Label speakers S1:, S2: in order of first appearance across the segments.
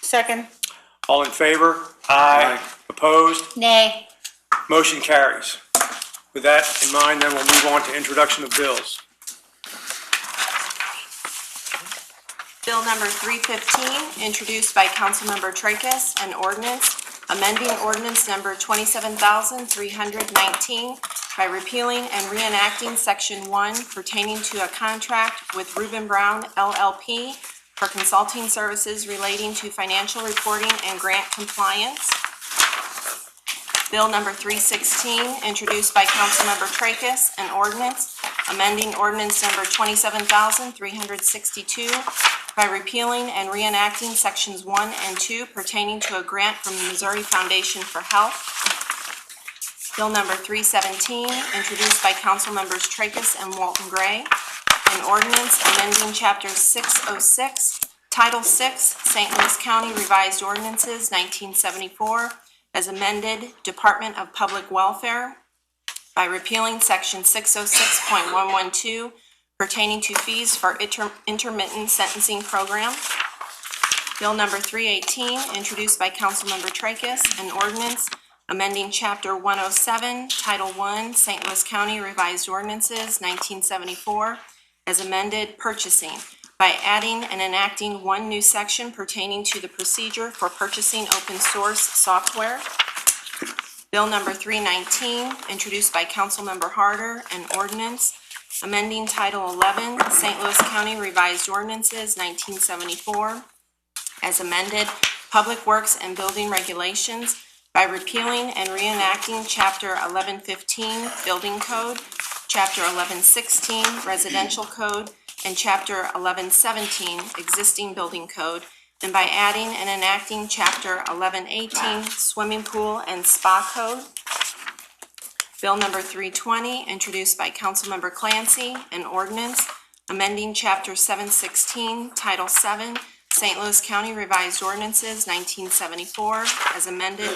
S1: Second.
S2: All in favor? Aye. Opposed?
S1: Nay.
S2: Motion carries. With that in mind, then we'll move on to introduction of bills.
S3: Bill number 315, introduced by Councilmember Tracus, an ordinance amending ordinance number 27,319 by repealing and reenacting Section 1 pertaining to a contract with Reuben Brown LLP for consulting services relating to financial reporting and grant compliance. Bill number 316, introduced by Councilmember Tracus, an ordinance amending ordinance number 27,362 by repealing and reenacting sections 1 and 2 pertaining to a grant from the Missouri Foundation for Health. Bill number 317, introduced by Councilmembers Tracus and Walton Gray, an ordinance amending Chapter 606, Title 6, St. Louis County Revised Ordinances 1974, as amended Department of Public Welfare by repealing Section 606.112 pertaining to fees for inter- intermittent sentencing program. Bill number 318, introduced by Councilmember Tracus, an ordinance amending Chapter 107, Title 1, St. Louis County Revised Ordinances, 1974, as amended purchasing by adding and enacting one new section pertaining to the procedure for purchasing open source software. Bill number 319, introduced by Councilmember Harder, an ordinance amending Title 11, St. Louis County Revised Ordinances, 1974, as amended Public Works and Building Regulations by repealing and reenacting Chapter 1115 Building Code, Chapter 1116 Residential Code, and Chapter 1117 Existing Building Code, and by adding and enacting Chapter 1118 Swimming Pool and Spa Code. Bill number 320, introduced by Councilmember Clancy, an ordinance amending Chapter 716, Title 7, St. Louis County Revised Ordinances 1974, as amended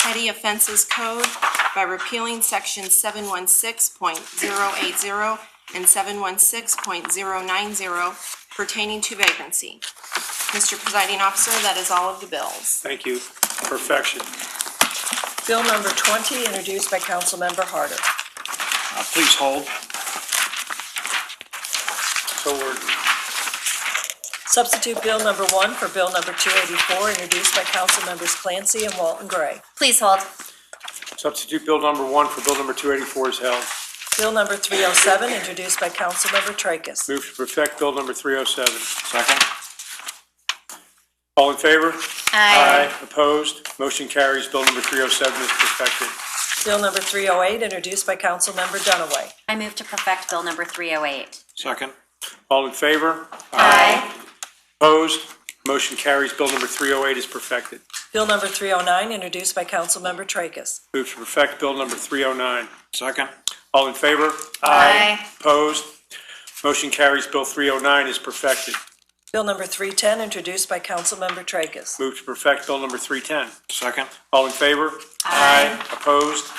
S3: petty offenses code by repealing Section 716.080 and 716.090 pertaining to vagrancy. Mr. Presiding Officer, that is all of the bills.
S2: Thank you. Perfection.
S4: Bill number 20, introduced by Councilmember Harder.
S5: Uh, Please hold.
S2: So ordered.
S4: Substitute Bill number 1 for Bill number 284, introduced by Councilmembers Clancy and Walton Gray.
S1: Please hold.
S2: Substitute Bill number one for Bill number 284 is held.
S4: Bill number 307, introduced by Councilmember Tracus.
S2: Move to perfect Bill number 307.
S5: Second.
S2: All in favor?
S1: Aye.
S2: Opposed? Motion carries. Bill number 307 is perfected.
S4: Bill number 308, introduced by Councilmember Dunaway.
S6: I move to perfect Bill number 308.
S5: Second.
S2: All in favor?
S1: Aye.
S2: Opposed? Motion carries. Bill number 308 is perfected.
S4: Bill number 309, introduced by Councilmember Tracus.
S2: Move to perfect Bill number 309.
S5: Second.
S2: All in favor?
S1: Aye.
S2: Opposed? Motion carries. Bill 309 is perfected.
S4: Bill number 310, introduced by Councilmember Tracus.
S2: Move to perfect Bill number 310.
S5: Second.
S2: All in favor? Aye. Opposed?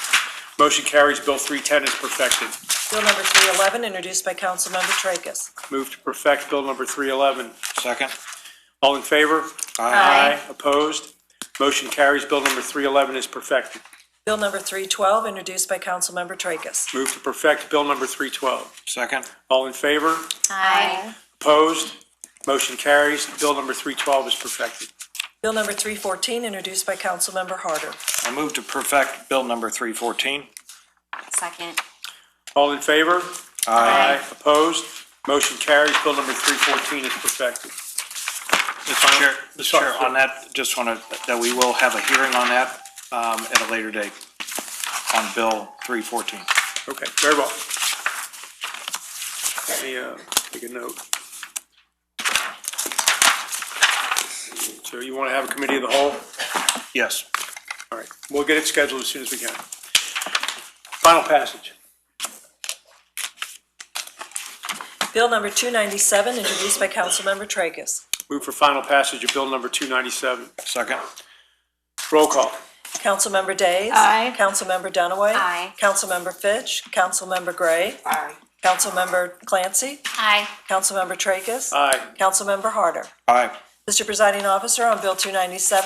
S2: Motion carries. Bill 310 is perfected.
S4: Bill number 311, introduced by Councilmember Tracus.
S2: Move to perfect Bill number 311.
S5: Second.
S2: All in favor?
S5: Aye.
S2: Opposed? Motion carries. Bill number 311 is perfected.
S4: Bill number 312, introduced by Councilmember Tracus.
S2: Move to perfect Bill number 312.
S5: Second.
S2: All in favor?
S6: Aye.
S2: Opposed? Motion carries. Bill number 312 is perfected.
S4: Bill number 314, introduced by Councilmember Harder.
S5: I move to perfect Bill number 314.
S6: Second.
S2: All in favor?
S5: Aye.
S2: Opposed? Motion carries. Bill number 314 is perfected.
S5: Mr. Chair, Mr.
S2: Sorry.
S5: Chair, on that, just want to, that we will have a hearing on that um, at a later date on Bill 314.
S2: Okay, very well. Let me, uh, take a note. So you want to have a committee of the whole?
S5: Yes.
S2: All right, we'll get it scheduled as soon as we can. Final passage.
S4: Bill number 297, introduced by Councilmember Tracus.
S2: Move for final passage of Bill number 297.
S5: Second.
S2: Roll call.
S4: Councilmember Days.
S1: Aye.
S4: Councilmember Dunaway.
S6: Aye.
S4: Councilmember Fitch. Councilmember Gray. Aye. Councilmember Clancy.
S6: Aye.
S4: Councilmember Tracus.
S2: Aye.
S4: Councilmember Harder.
S5: Aye.
S4: Mr. Presiding Officer, on Bill 297,